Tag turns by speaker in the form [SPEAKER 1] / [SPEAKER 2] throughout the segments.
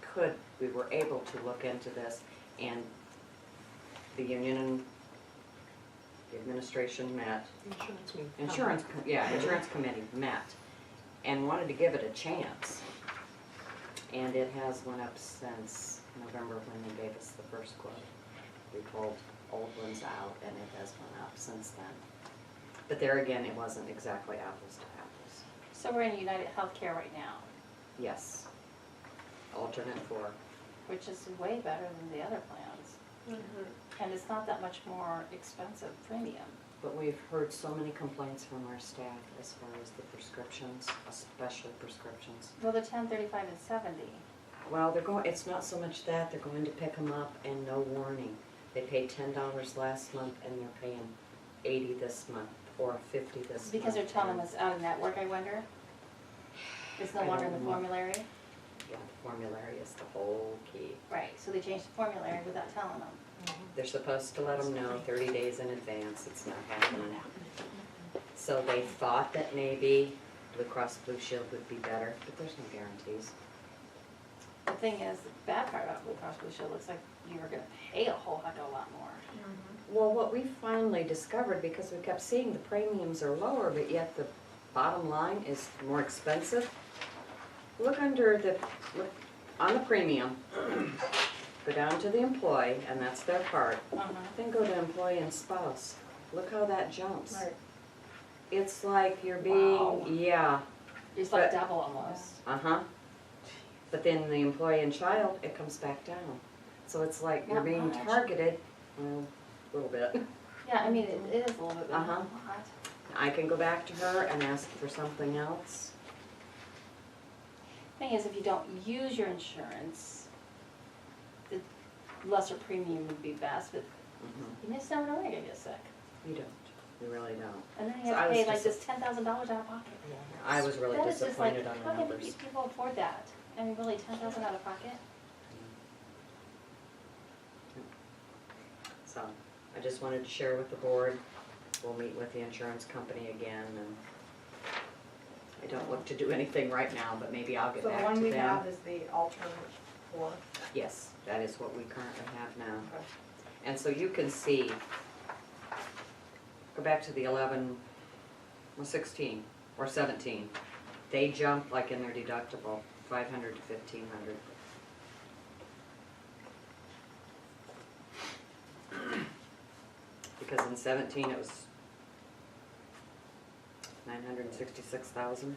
[SPEAKER 1] could, we were able to look into this, and the union and the administration met,
[SPEAKER 2] Insurance me.
[SPEAKER 1] insurance, com- yeah, insurance committee met, and wanted to give it a chance. And it has went up since November when they gave us the first quote. We pulled old ones out, and it has went up since then. But there again, it wasn't exactly apples to apples.
[SPEAKER 3] So we're in United Healthcare right now,
[SPEAKER 1] Yes. Alternate four.
[SPEAKER 3] which is way better than the other plans.
[SPEAKER 1] Mm-hmm.
[SPEAKER 3] And it's not that much more expensive premium.
[SPEAKER 1] But we've heard so many complaints from our staff as far as the prescriptions, especially prescriptions.
[SPEAKER 3] Well, the ten thirty-five and seventy,
[SPEAKER 1] Well, they're going, it's not so much that, they're going to pick them up and no warning. They paid ten dollars last month and they're paying eighty this month or fifty this month.
[SPEAKER 3] because they're telling
[SPEAKER 1] and-
[SPEAKER 3] us out of network, I wonder? It's
[SPEAKER 1] I
[SPEAKER 3] no
[SPEAKER 1] don't
[SPEAKER 3] longer in the
[SPEAKER 1] know.
[SPEAKER 3] formulary?
[SPEAKER 1] Yeah, the formulary is the whole key.
[SPEAKER 3] Right, so they changed the formulary without telling them.
[SPEAKER 1] They're supposed to let them know thirty days in advance, it's not happening. So they thought that maybe Blue Cross Blue Shield would be better, but there's no guarantees.
[SPEAKER 3] The thing is, the bad part about Blue Cross Blue Shield looks like you were gonna pay a whole heck of a lot more.
[SPEAKER 1] Well, what we finally discovered, because we kept seeing the premiums are lower, but yet the bottom line is more expensive. Look under the, look on the premium, go down to the employee, and that's their part.
[SPEAKER 3] Uh-huh.
[SPEAKER 1] Then go to employee and spouse. Look how that jumps. It's like you're being,
[SPEAKER 3] Wow.
[SPEAKER 1] yeah,
[SPEAKER 3] It's like
[SPEAKER 1] But-
[SPEAKER 3] double almost.
[SPEAKER 1] uh-huh. But then the employee and child, it comes back down. So it's like you're
[SPEAKER 3] Not
[SPEAKER 1] being
[SPEAKER 3] much.
[SPEAKER 1] targeted, well, a little bit.
[SPEAKER 3] Yeah, I mean, it is a little bit, but not a
[SPEAKER 1] Uh-huh.
[SPEAKER 3] lot.
[SPEAKER 1] I can go back to her and ask for something else.
[SPEAKER 3] Thing is, if you don't use your insurance, the lesser premium would be best, but you just never know when you're gonna get sick.
[SPEAKER 1] You don't, you Mm-hmm. really don't.
[SPEAKER 3] And then
[SPEAKER 1] So
[SPEAKER 3] you
[SPEAKER 1] I
[SPEAKER 3] have to
[SPEAKER 1] was
[SPEAKER 3] pay like
[SPEAKER 1] disa-
[SPEAKER 3] this ten thousand dollars out of pocket.
[SPEAKER 1] I was really
[SPEAKER 3] That is just like,
[SPEAKER 1] disappointed on the
[SPEAKER 3] how can these
[SPEAKER 1] numbers.
[SPEAKER 3] people afford that? I mean, really, ten thousand out of pocket?
[SPEAKER 1] So, I just wanted to share with the board, we'll meet with the insurance company again and I don't look to do anything right now, but maybe I'll get
[SPEAKER 4] So the
[SPEAKER 1] back
[SPEAKER 4] one
[SPEAKER 1] to
[SPEAKER 4] we have
[SPEAKER 1] them.
[SPEAKER 4] is the alternate four.
[SPEAKER 1] Yes, that is what we currently have now.
[SPEAKER 4] Okay.
[SPEAKER 1] And so you can see, go back to the eleven, well, sixteen or seventeen. They jump like in their deductible, five hundred to fifteen hundred. Because in seventeen, it was nine hundred and sixty-six thousand.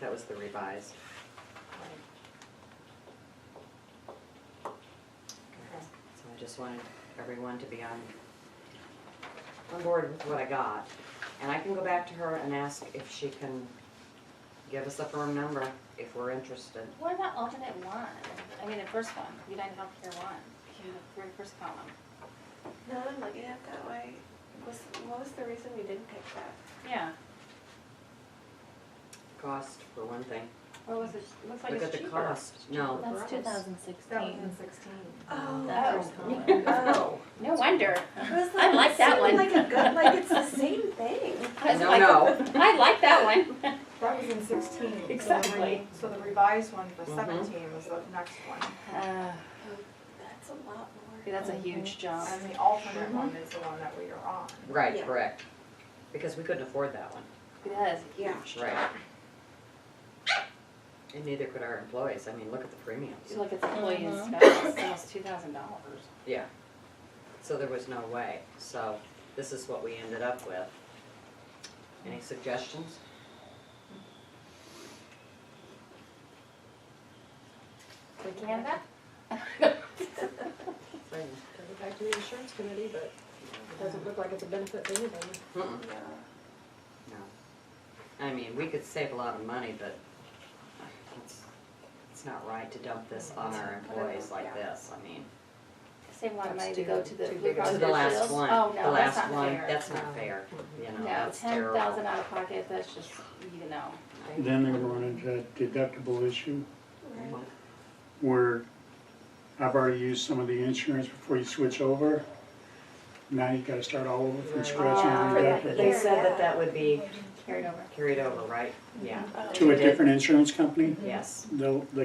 [SPEAKER 1] That was the revised.
[SPEAKER 4] Okay.
[SPEAKER 1] So I just wanted everyone to be on, on board with what I got. And I can go back to her and ask if she can give us a firm number if we're interested.
[SPEAKER 3] What about alternate one? I mean, the first one, United Healthcare one, in the very first column.
[SPEAKER 5] Now that I'm looking at it that way, was, what was the reason we didn't pick that?
[SPEAKER 3] Yeah,
[SPEAKER 1] Cost, for one thing.
[SPEAKER 3] or was it, looks like
[SPEAKER 1] Look
[SPEAKER 3] it's cheaper.
[SPEAKER 1] at the cost. No.
[SPEAKER 6] That's
[SPEAKER 4] Gross.
[SPEAKER 6] 2016.
[SPEAKER 4] That was in sixteen.
[SPEAKER 5] Oh.
[SPEAKER 6] That
[SPEAKER 3] Oh.
[SPEAKER 6] first column.
[SPEAKER 5] Oh.
[SPEAKER 3] No wonder.
[SPEAKER 5] It was
[SPEAKER 3] I like
[SPEAKER 5] it
[SPEAKER 3] that
[SPEAKER 5] seemed
[SPEAKER 3] one.
[SPEAKER 5] Like a good, like it's the same thing.
[SPEAKER 3] I was
[SPEAKER 1] No,
[SPEAKER 3] like,
[SPEAKER 1] no.
[SPEAKER 3] I like that one.
[SPEAKER 4] That was in sixteen. So the re-
[SPEAKER 3] Exactly.
[SPEAKER 4] So the revised one for
[SPEAKER 1] Mhm.
[SPEAKER 4] seventeen was the next one.
[SPEAKER 3] Uh,
[SPEAKER 5] That's a lot more.
[SPEAKER 3] That's a huge jump.
[SPEAKER 4] And the alternate one is the one that we are on.
[SPEAKER 1] Right,
[SPEAKER 5] Yeah.
[SPEAKER 1] correct. Because we couldn't afford that one.
[SPEAKER 3] It is.
[SPEAKER 5] Yeah.
[SPEAKER 1] Right. And neither could our employees. I mean, look at the premiums.
[SPEAKER 3] You look at the employee and spouse, it's almost two thousand dollars.
[SPEAKER 1] Yeah. So there was no way. So this is what we ended up with. Any suggestions?
[SPEAKER 3] Canada?
[SPEAKER 1] Right.
[SPEAKER 6] Took it back to the insurance committee, but it doesn't look like it's a benefit to anybody.
[SPEAKER 1] Mm-mm.
[SPEAKER 5] Yeah.
[SPEAKER 1] No. I mean, we could save a lot of money, but it's, it's not right to dump this on our employees like this, I mean.
[SPEAKER 3] Save a lot of money to go
[SPEAKER 6] That's too-
[SPEAKER 3] to the
[SPEAKER 6] too
[SPEAKER 3] Blue
[SPEAKER 6] big
[SPEAKER 3] Cross
[SPEAKER 1] To
[SPEAKER 3] Blue
[SPEAKER 1] the last
[SPEAKER 3] Shields.
[SPEAKER 1] one,
[SPEAKER 3] Oh,
[SPEAKER 1] the
[SPEAKER 3] no, that's
[SPEAKER 1] last
[SPEAKER 3] not
[SPEAKER 1] one,
[SPEAKER 3] fair.
[SPEAKER 1] that's not fair, you know,
[SPEAKER 3] No,
[SPEAKER 1] that's
[SPEAKER 3] ten
[SPEAKER 1] terrible.
[SPEAKER 3] thousand out of pocket, that's just, you know,
[SPEAKER 7] Then they run into that deductible issue
[SPEAKER 1] Mm-hmm.
[SPEAKER 5] Right.
[SPEAKER 7] where I've already used some of the insurance before you switch over. Now you gotta start all over from scratch on the
[SPEAKER 3] Right.
[SPEAKER 1] Um, But They
[SPEAKER 7] deductible
[SPEAKER 1] said that that would be
[SPEAKER 3] carried over.
[SPEAKER 1] carried over, right? Yeah,
[SPEAKER 3] Mm-hmm.
[SPEAKER 7] to a different insurance company.
[SPEAKER 1] yes.
[SPEAKER 7] They'll, they